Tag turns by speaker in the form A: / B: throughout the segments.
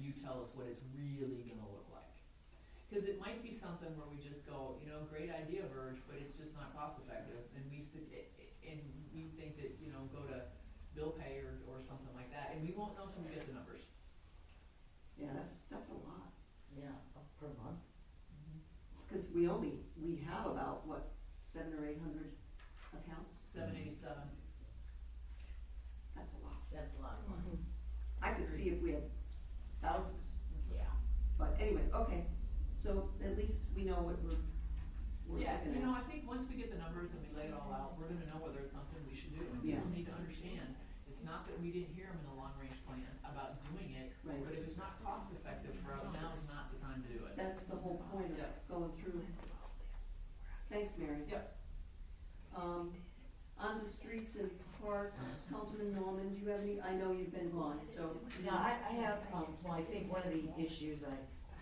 A: you tell us what it's really gonna look like. Cause it might be something where we just go, you know, great idea, Verge, but it's just not cost effective, and we sit, eh, and we think that, you know, go to bill pay or, or something like that, and we won't know till we get the numbers.
B: Yeah, that's, that's a lot,
C: Yeah, uh, per month.
B: Mm-hmm. because we only, we have about, what, seven or eight hundred accounts?
A: Seven eighty-seven.
B: That's a lot.
C: That's a lot of money.
B: I could see if we had thousands,
C: Yeah.
B: but anyway, okay, so at least we know what we're, we're looking
A: Yeah,
B: at.
A: you know, I think once we get the numbers and we lay it all out, we're gonna know whether it's something we should do. And
B: Yeah.
A: People need to understand, it's not that we didn't hear them in the long-range plan about doing it,
B: Right.
A: but if it's not cost-effective for us, now is not the time to do it.
B: That's the whole point
A: Yeah.
B: of going through. Thanks, Mary.
A: Yep.
B: Um, on to streets and parks, Councilman Norman, do you have any, I know you've been gone, so.
C: Now, I, I have, um, well, I think one of the issues I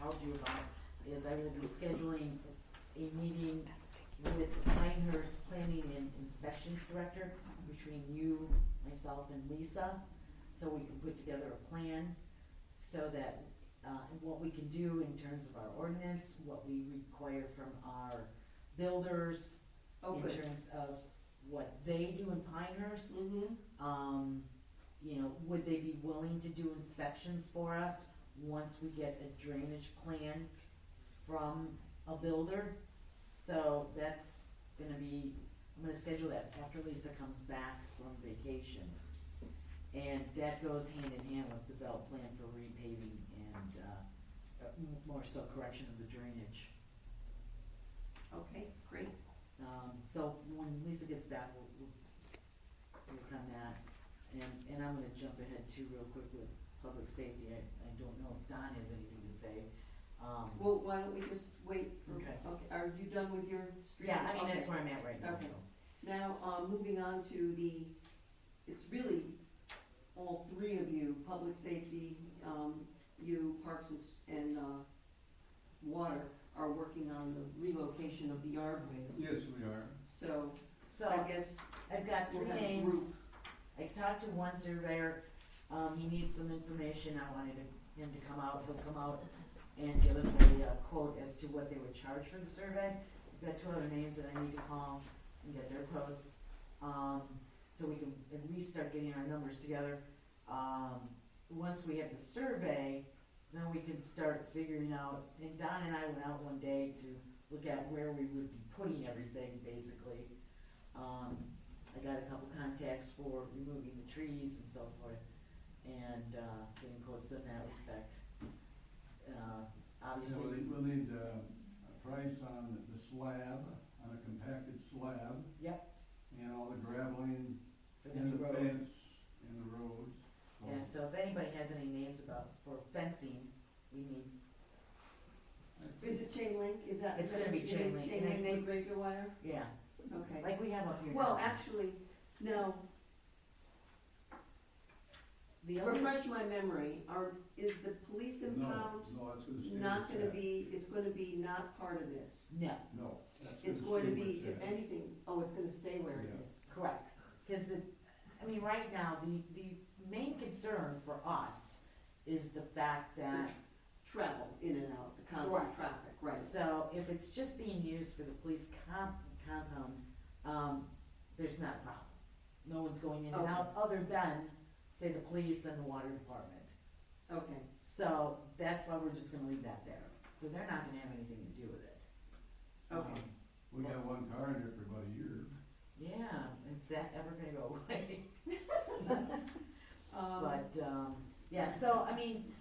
C: called you about is I will be scheduling a meeting with the Pinehurst Planning and Inspections Director between you, myself, and Lisa, so we can put together a plan so that, uh, and what we can do in terms of our ordinance, what we require from our builders
B: Oh,
C: in
B: good.
C: terms of what they do in Pinehurst
B: Mm-hmm,
C: um, you know, would they be willing to do inspections for us once we get a drainage plan from a builder? So that's gonna be, I'm gonna schedule that after Lisa comes back from vacation. And that goes hand in hand with the belt plan for repaving and, uh, uh, m- more so correction of the drainage.
B: okay, great.
C: Um, so when Lisa gets back, we'll, we'll work on that. And, and I'm gonna jump ahead too real quick with public safety. I, I don't know if Don has anything to say. Um,
B: Well, why don't we just wait for,
C: Okay.
B: okay, are you done with your street?
C: yeah, I mean, that's
B: Okay.
C: where I'm at right now,
B: Okay.
C: so.
B: Now, uh, moving on to the, it's really all three of you, public safety, um, you, Parks and, s- and, uh, Water are working on the relocation of the yardways.
D: Yes, we are.
B: So,
C: So
B: I guess,
C: I've got
B: We'll
C: three
B: have a
C: names. I talked to one surveyor, um, he needs some information, I wanted him- him to come out, he'll come out and give us a uh, quote as to what they would charge for the survey. I've got two other names that I need to call and get their quotes, um, so we can at least start getting our numbers together. Um, once we have the survey, then we can start figuring out, and Don and I went out one day to look at where we would be putting everything, basically. Um, I got a couple contacts for removing the trees and so forth, and, uh, getting quotes in that respect. Uh,
D: Yeah,
C: obviously,
D: we'll need, we'll need uh, a price on the- the slab, on a compacted slab,
C: yep,
D: and all the graveling,
C: for the
D: and
C: new
D: the
C: road.
D: fence, and the roads.
C: Yeah, so if anybody has any names about, for fencing, we need,
B: is it chain link, is that?
C: It's gonna be
B: is it
C: chain link, and I
B: Chain link
C: think-
B: with razor wire,
C: yeah,
B: okay.
C: like we have up here.
B: Well,
C: now.
B: actually, no,
C: The other,
B: refresh my memory, are, is the police
D: No,
B: impound
D: No, that's gonna stay with
B: not gonna
D: that.
B: be, it's gonna be not part of this?
C: no,
D: No. that's
B: It's
D: gonna
B: going to
D: stay
B: be,
D: with
B: if
D: that.
B: anything, oh, it's gonna stay where it
D: Yeah.
B: is.
C: correct, cause it, I mean, right now, the, the main concern for us is the fact that
B: Travel in and out, the constant
C: Correct.
B: traffic, right.
C: So if it's just being used for the police comp, compound, um, there's not a problem. No one's going in and out, other than, say, the police and the water department.
B: Okay,
C: So that's why we're just gonna leave that there. So they're not gonna have anything to do with it.
B: okay.
C: Um,
D: We got one car in there for about a year.
C: Yeah, is that ever gonna go away?
D: Uh-huh.
B: Um,
C: But, um, yeah, so, I mean,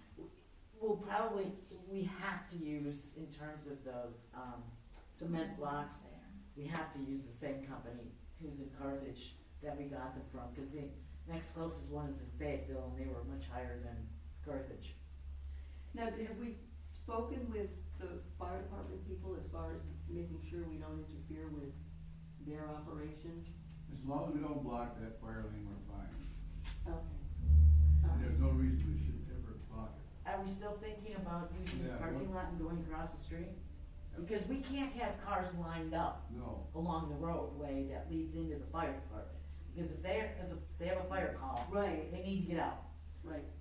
C: we'll probably, we have to use, in terms of those, um, cement blocks, we have to use the same company who's in Carthage that we got them from, cause the next closest one is in Fayetteville, and they were much higher than Carthage.
B: Now, have we spoken with the fire department people as far as making sure we don't interfere with their operations?
D: As long as we don't block that fire lane, we're fine.
B: Okay. All
D: And
B: right.
D: there's no reason we should ever block it.
C: Are we still thinking about using the
D: Yeah,
C: parking lot and going across the street?
D: Yeah.
C: Because we can't have cars lined up
D: No,
C: along the roadway that leads into the fire department, because if they're, because if they have a fire call,
B: Right,
C: they need to get out.
B: right.